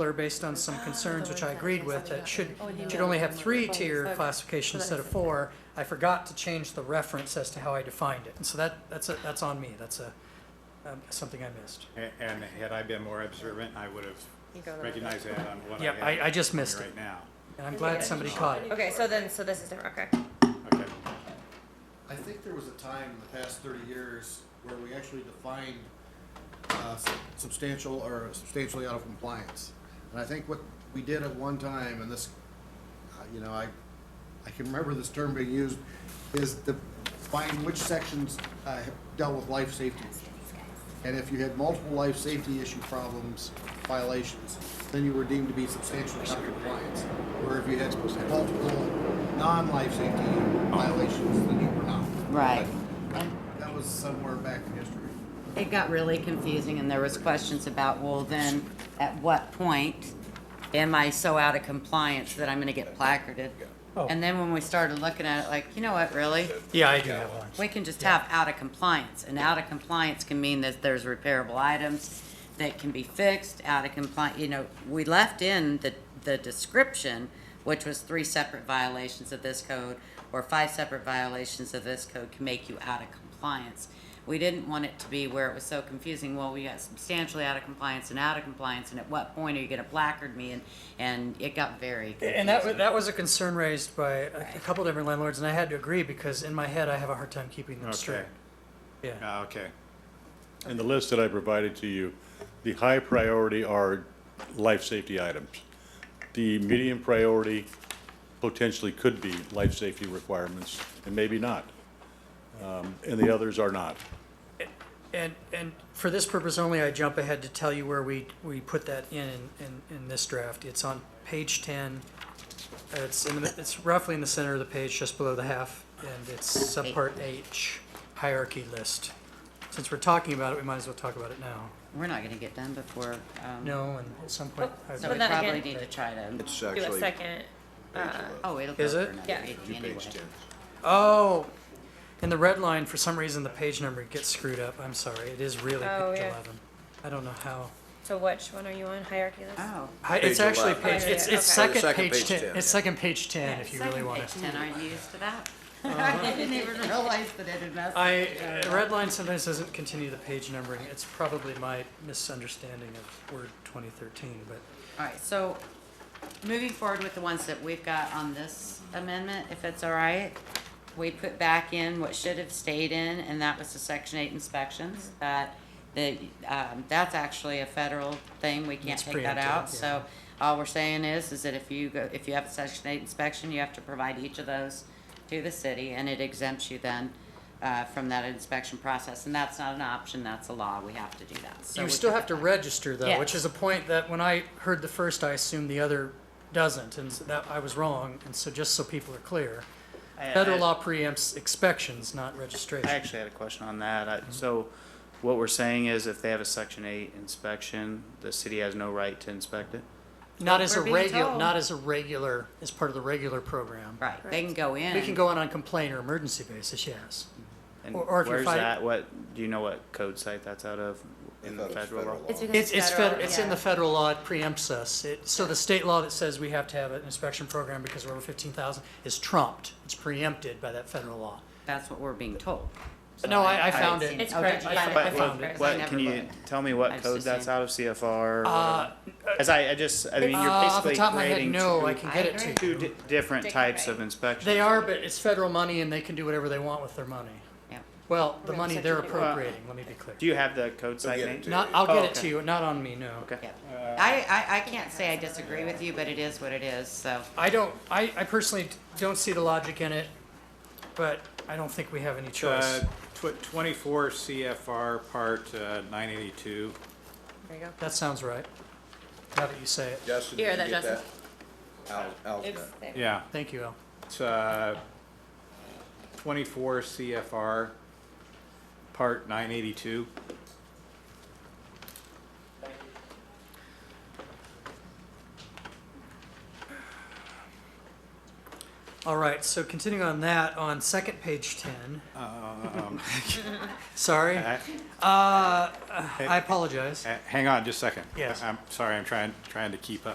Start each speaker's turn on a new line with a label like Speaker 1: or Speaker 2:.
Speaker 1: are based on some concerns, which I agreed with, that should, should only have three tier classification instead of four. I forgot to change the reference as to how I defined it, and so that, that's, a- that's on me, that's a, um, something I missed.
Speaker 2: A- And had I been more observant, I would have
Speaker 3: You go to-
Speaker 2: recognized that on what I
Speaker 1: Yep,
Speaker 2: have.
Speaker 1: I- I just
Speaker 2: for me
Speaker 1: missed it.
Speaker 2: Right now.
Speaker 1: And I'm glad somebody caught it.
Speaker 3: Okay, so then, so this is different, okay.
Speaker 2: Okay,
Speaker 4: I think there was a time in the past thirty years where we actually defined uh, s- substantial or substantially out of compliance. And I think what we did at one time, and this, uh, you know, I, I can remember this term being used, is to find which sections uh, have dealt with life safety issues. And if you had multiple life safety issue problems, violations, then you were deemed to be substantially out of compliance. Or if you had multiple non-life safety violations, then you were not.
Speaker 5: Right.
Speaker 4: That was somewhere back in history.
Speaker 5: It got really confusing and there was questions about, well, then, at what point am I so out of compliance that I'm gonna get placarded?
Speaker 1: Oh.
Speaker 5: And then when we started looking at it, like, you know what, really?
Speaker 1: Yeah, I do have one.
Speaker 5: We can just have out of compliance, and out of compliance can mean that there's repairable items that can be fixed, out of compliance, you know, we left in the, the description, which was three separate violations of this code, or five separate violations of this code can make you out of compliance. We didn't want it to be where it was so confusing, well, we got substantially out of compliance and out of compliance, and at what point are you gonna placard me, and, and it got very
Speaker 1: And that, wa- that was a concern raised by a a couple different landlords, and I had to agree, because in my head, I have a hard time keeping them straight.
Speaker 2: okay,
Speaker 1: Yeah,
Speaker 2: Ah, okay.
Speaker 6: In the list that I provided to you, the high priority are life safety items. The medium priority potentially could be life safety requirements, and maybe not. Um, And the others are not.
Speaker 1: and, and for this purpose only, I jump ahead to tell you where we, we put that in, in, in this draft. It's on page ten, it's in, the- it's roughly in the center of the page, just below the half, and it's subpart H, hierarchy list. Since we're talking about it, we might as well talk about it now.
Speaker 5: We're not gonna get done before, um,
Speaker 1: No, and at some point, I-
Speaker 5: so we
Speaker 3: then
Speaker 5: probably
Speaker 3: again-
Speaker 5: need to try to.
Speaker 7: It's
Speaker 3: Do a
Speaker 7: actually page
Speaker 3: second.
Speaker 5: Oh, it'll go
Speaker 1: Is
Speaker 5: for
Speaker 1: it?
Speaker 5: another
Speaker 3: Yeah.
Speaker 5: meeting anyway.
Speaker 7: ten.
Speaker 1: oh, in the red line, for some reason, the page number gets screwed up. I'm sorry, it is really
Speaker 3: Oh,
Speaker 1: page
Speaker 3: yeah.
Speaker 1: eleven. I don't know how.
Speaker 3: So which one are you on, hierarchy list?
Speaker 5: Oh.
Speaker 1: Hi- it's
Speaker 7: Page
Speaker 1: actually
Speaker 7: 11.
Speaker 1: page.
Speaker 3: Oh, yeah,
Speaker 1: It's,
Speaker 7: Oh,
Speaker 1: it's
Speaker 3: yeah, okay.
Speaker 7: the
Speaker 1: second,
Speaker 7: second
Speaker 1: page,
Speaker 7: page
Speaker 1: ten.
Speaker 7: 10,
Speaker 1: It's
Speaker 7: yeah.
Speaker 1: second page ten if you really Uh, want
Speaker 5: Page
Speaker 1: to.
Speaker 5: ten, aren't you used to that? I didn't even realize that it had messed.
Speaker 1: I uh, red line sometimes doesn't continue the page numbering. It's probably my misunderstanding of Word 2013, but
Speaker 5: All right, so moving forward with the ones that we've got on this amendment, if it's all right, we put back in what should have stayed in, and that was the section eight inspections, that, that, um, that's actually a federal thing, we can't
Speaker 1: It's
Speaker 5: take that out,
Speaker 1: preempted,
Speaker 5: so all we're saying is, is that if you go, if you have a section eight inspection, you have to provide each of those to the city, and it exempts you then, uh, from that inspection process, and that's not an option, that's a law, we have to do that, so.
Speaker 1: you
Speaker 5: we
Speaker 1: still
Speaker 5: took
Speaker 1: have to register though, which is
Speaker 5: Yes.
Speaker 1: a point that when I heard the first, I assumed the other doesn't, and so that I was wrong. And so just so people are clear,
Speaker 8: I-
Speaker 1: federal
Speaker 8: I-
Speaker 1: law preempts inspections, not registration.
Speaker 8: I actually had a question on that. I- So what we're saying is if they have a section eight inspection, the city has no right to inspect it?
Speaker 1: not as a
Speaker 5: We're being
Speaker 1: regular,
Speaker 5: told.
Speaker 1: not as a regular, as part of the regular program.
Speaker 5: Right, they can go in.
Speaker 1: We can go in on complaint or emergency basis, yes.
Speaker 8: And
Speaker 1: Or- or if you're
Speaker 8: where's
Speaker 1: fight-
Speaker 8: that, what, do you know what code site that's out of in the
Speaker 7: Thought it was
Speaker 8: federal law?
Speaker 3: It's because
Speaker 1: It's, it's fed, it's in
Speaker 3: yeah.
Speaker 1: the federal law, it preempts us. It, so the state law that says we have to have an inspection program because we're over fifteen thousand is trumped. It's preempted by that federal law.
Speaker 5: That's what we're being told.
Speaker 1: But no, I, I found it.
Speaker 3: It's
Speaker 5: Okay,
Speaker 3: correct.
Speaker 5: I
Speaker 3: You found
Speaker 1: I
Speaker 8: But
Speaker 3: it.
Speaker 1: found
Speaker 8: what,
Speaker 1: it.
Speaker 8: what-
Speaker 5: I
Speaker 8: can
Speaker 5: never
Speaker 8: you
Speaker 5: looked.
Speaker 8: tell me what
Speaker 5: I've
Speaker 8: code
Speaker 5: just
Speaker 8: that's
Speaker 5: seen-
Speaker 8: out of CFR?
Speaker 1: Uh,
Speaker 8: Because I, I just, I mean,
Speaker 1: Uh,
Speaker 8: you're
Speaker 1: off the
Speaker 8: basically
Speaker 1: top of my head,
Speaker 8: creating
Speaker 1: no, I
Speaker 8: two,
Speaker 1: can
Speaker 5: I
Speaker 1: get it to you.
Speaker 8: two di-
Speaker 5: agree.
Speaker 8: different
Speaker 3: Different,
Speaker 8: types
Speaker 3: right.
Speaker 8: of inspections.
Speaker 1: They are, but it's federal money and they can do whatever they want with their money.
Speaker 5: Yeah.
Speaker 1: Well, the
Speaker 3: Right,
Speaker 1: money
Speaker 3: so
Speaker 1: they're
Speaker 3: you-
Speaker 1: appropriating, let me be clear.
Speaker 8: Do you have the code site
Speaker 7: get it
Speaker 8: name?
Speaker 7: to
Speaker 1: Not, I'll get
Speaker 8: Oh,
Speaker 1: it to
Speaker 8: okay.
Speaker 1: you, not on me, no.
Speaker 8: Okay.
Speaker 5: Yeah. I, I, I can't say I disagree with you, but it is what it is, so.
Speaker 1: I don't, I, I personally don't see the logic in it, but I don't think we have any choice.
Speaker 2: Uh, tw- twenty-four CFR part uh, nine eighty-two.
Speaker 3: There you go.
Speaker 1: That sounds right. Now that you say it.
Speaker 7: Justin,
Speaker 3: You
Speaker 7: did
Speaker 3: hear
Speaker 7: you
Speaker 3: that,
Speaker 7: get that?
Speaker 3: Justin?
Speaker 7: Al, Al's got it.
Speaker 3: It's-
Speaker 2: Yeah,
Speaker 1: Thank you, Al.
Speaker 2: it's, uh, twenty-four CFR part nine eighty-two.
Speaker 1: All right, so continuing on that, on second page ten,
Speaker 2: Uh,
Speaker 1: Sorry. Uh,
Speaker 2: I-
Speaker 1: I apologize.
Speaker 2: Uh, Hang on just a second.
Speaker 1: Yes.
Speaker 2: I'm sorry, I'm trying, trying to keep up.